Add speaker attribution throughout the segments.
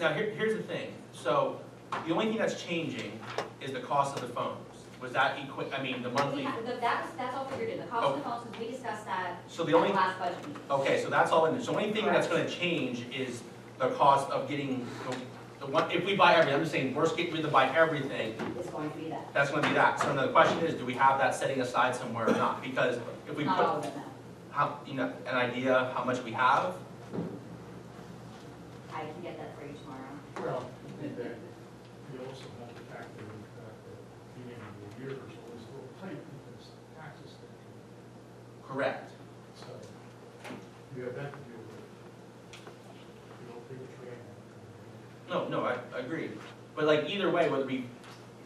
Speaker 1: Now, here, here's the thing, so, the only thing that's changing is the cost of the phones. Was that equi, I mean, the
Speaker 2: We
Speaker 1: monthly,
Speaker 2: have, that's, that's all figured in, the cost of the phones, because we discussed that
Speaker 1: so
Speaker 2: at
Speaker 1: the
Speaker 2: the
Speaker 1: only,
Speaker 2: last budget meeting.
Speaker 1: okay, so that's all in there. So the only thing that's gonna change is the cost of getting, the- the one, if we buy everything, I'm just saying, worst case, we have to buy everything,
Speaker 2: It's going to be that,
Speaker 1: that's gonna be that. So now the question is, do we have that setting aside somewhere or not? Because if we
Speaker 2: not all
Speaker 1: put,
Speaker 2: of it, no.
Speaker 1: how, you know, an idea how much we have,
Speaker 2: I can get that for you tomorrow.
Speaker 3: Well, I think that you also have to factor in the fact that beginning of the year is always a little tight because taxes take,
Speaker 1: correct?
Speaker 3: so you have that to deal with. You don't think it's right.
Speaker 1: No, no, I, I agree. But like either way, whether we,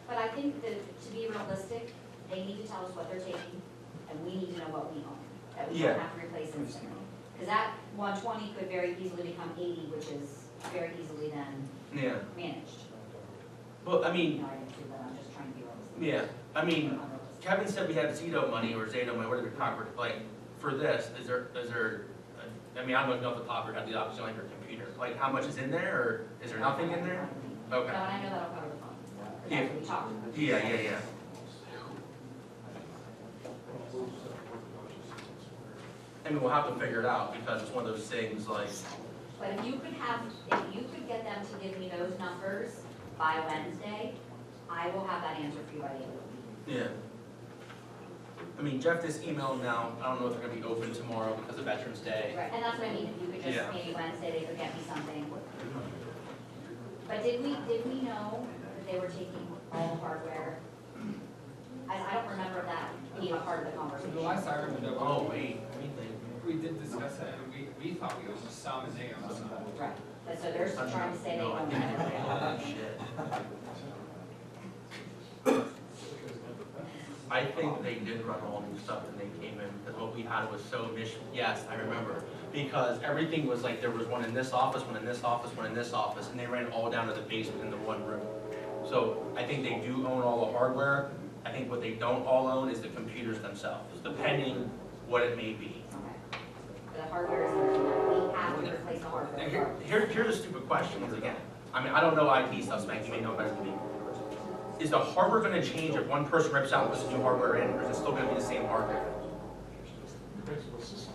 Speaker 2: But I think that to be realistic, they need to tell us what they're taking, and we need to know what we own, that we don't
Speaker 1: Yeah.
Speaker 2: have to replace instantly. Because that one twenty could very easily become eighty, which is very easily then
Speaker 1: yeah,
Speaker 2: managed.
Speaker 1: well, I
Speaker 2: You
Speaker 1: mean,
Speaker 2: know, I didn't do that, I'm just trying to be realistic.
Speaker 1: yeah, I mean,
Speaker 2: Or unrealistic.
Speaker 1: Kevin said we had Zito money or Zato money, whatever the proper, like, for this, is there, is there, uh, I mean, I don't know if the popper had the option on your computer, like, how much is in there, or is there nothing in there?
Speaker 2: No, and
Speaker 1: Okay,
Speaker 2: I know that'll cover the phone, because that's what we talked about.
Speaker 1: yeah, yeah, yeah, I mean, we'll have to figure it out, because it's one of those things, like,
Speaker 2: But if you could have, if you could get them to give me those numbers by Wednesday, I will have that answer for you by the end of the week.
Speaker 1: yeah. I mean, Jeff, this email now, I don't know if they're gonna be open tomorrow because of Veterans Day.
Speaker 2: Right, and that's what I mean, if you could
Speaker 1: Yeah.
Speaker 2: just, maybe Wednesday, they could get me something. But did we, did we know that they were taking all the hardware? I, I don't remember that being a part of the conversation.
Speaker 4: The last I remember,
Speaker 1: Oh,
Speaker 4: we-
Speaker 1: wait, let me think.
Speaker 4: we did discuss that, and we, we thought we almost saw Mazzeo on some.
Speaker 2: Right, but so they're trying to say they
Speaker 1: No, I
Speaker 2: don't
Speaker 1: think
Speaker 2: have
Speaker 1: it's-
Speaker 2: it.
Speaker 1: oh, shit. I think they did run all new stuff and they came in, because what we had was so mission, yes, I remember. Because everything was like, there was one in this office, one in this office, one in this office, and they ran it all down to the basement in the one room. So I think they do own all the hardware. I think what they don't all own is the computers themselves, depending what it may be.
Speaker 2: Okay. The hardware is, we have to replace the
Speaker 1: Now, here,
Speaker 2: hardware.
Speaker 1: here, here's a stupid question, once again, I mean, I don't know IT stuff, Spank, you may know better than me. Is the hardware gonna change if one person rips out this new hardware in, or is it still gonna be the same hardware?
Speaker 3: Principal system.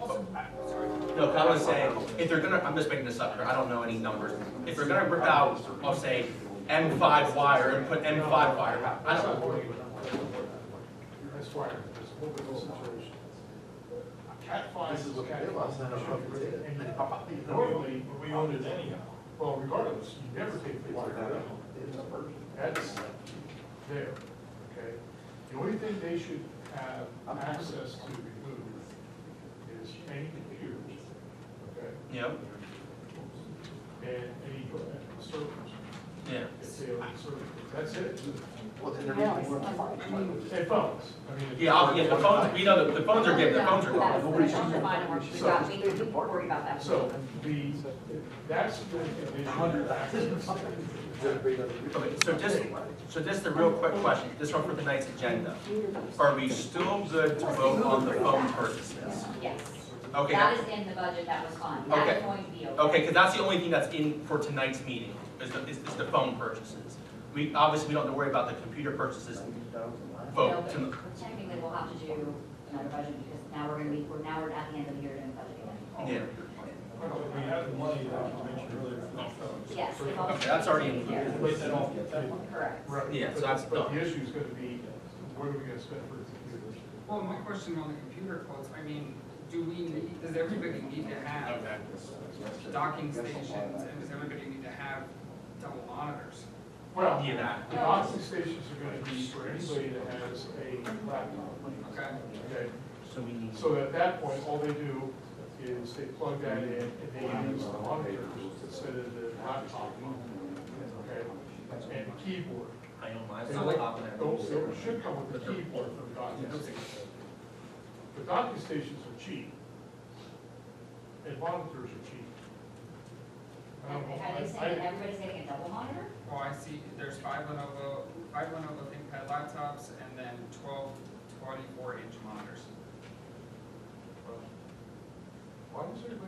Speaker 1: No, 'cause I was saying, if they're gonna, I'm just making this up here, I don't know any numbers, if they're gonna rip out, I'll say, M five wire and put M five wire back, I don't know.
Speaker 3: That's why there's a little bit of situation. Cat five
Speaker 5: This
Speaker 3: is
Speaker 5: is what they
Speaker 3: cat
Speaker 5: did last night, I don't know if you did it.
Speaker 3: And you- Normally, we owned it anyhow. Well, regardless, you never take the wire out. That's there, okay? The only thing they should have access to remove is any computers, okay?
Speaker 1: Yep,
Speaker 3: And any uh, servers,
Speaker 1: yeah,
Speaker 3: if they own servers, that's it.
Speaker 5: Well, then they're
Speaker 2: Yeah,
Speaker 5: making more
Speaker 2: it's-
Speaker 5: money.
Speaker 3: And phones, I mean. if-
Speaker 1: yeah, I'll- yeah, the phones, we know, the the phones are given, the phones are
Speaker 2: That's-
Speaker 1: gone.
Speaker 2: that's fine, we're- we got- we can worry about that.
Speaker 3: So the, that's the condition. of access.
Speaker 5: They're bringing other people.
Speaker 1: Okay, so just, so just a real quick question, this one for tonight's agenda. Are we still good to vote on the phone purchases?
Speaker 2: Yes.
Speaker 1: Okay,
Speaker 2: That is in the budget, that was fine, that's
Speaker 1: Okay.
Speaker 2: going to be okay.
Speaker 1: okay, because that's the only thing that's in for tonight's meeting, is the, is is the phone purchases. We, obviously, we don't have to worry about the computer purchases
Speaker 2: No,
Speaker 1: vote
Speaker 2: but
Speaker 1: tonight.
Speaker 2: Technically, we'll have to do another budget because now we're gonna be, we're, now we're at the end of the year doing budget again.
Speaker 1: Yeah,
Speaker 3: We have the money that you mentioned earlier.
Speaker 2: Yes. if all-
Speaker 1: Okay, that's already included.
Speaker 3: But then all-
Speaker 2: Correct.
Speaker 3: Right.
Speaker 1: Yeah, so
Speaker 3: But-
Speaker 1: that's
Speaker 3: But
Speaker 1: done.
Speaker 3: the issue is gonna be, what are we gonna spend for computers?
Speaker 4: Well, my question on the computer quotes, I mean, do we need, does everybody need to have
Speaker 1: Okay.
Speaker 4: docking stations, and does everybody need to have double monitors?
Speaker 3: Well,
Speaker 1: Yeah, that.
Speaker 3: the docking stations are gonna be for anybody that has a laptop,
Speaker 4: Okay,
Speaker 3: okay?
Speaker 1: So we need.
Speaker 3: So at that point, all they do is they plug that in and they use the monitors instead of the laptop, okay? And keyboard.
Speaker 1: I know mine's
Speaker 3: They
Speaker 1: on
Speaker 3: like-
Speaker 1: top of that.
Speaker 3: Those, those should come with a keyboard for the docking
Speaker 1: Yeah.
Speaker 3: station. The docking stations are cheap. And monitors are cheap. I
Speaker 2: Are
Speaker 3: don't know,
Speaker 2: are they
Speaker 3: I-
Speaker 2: saying everybody's getting a double monitor?
Speaker 4: well, Oh, I see, there's five Lenovo, five Lenovo ThinkPad laptops, and then twelve twenty-four inch monitors.
Speaker 3: Why does everybody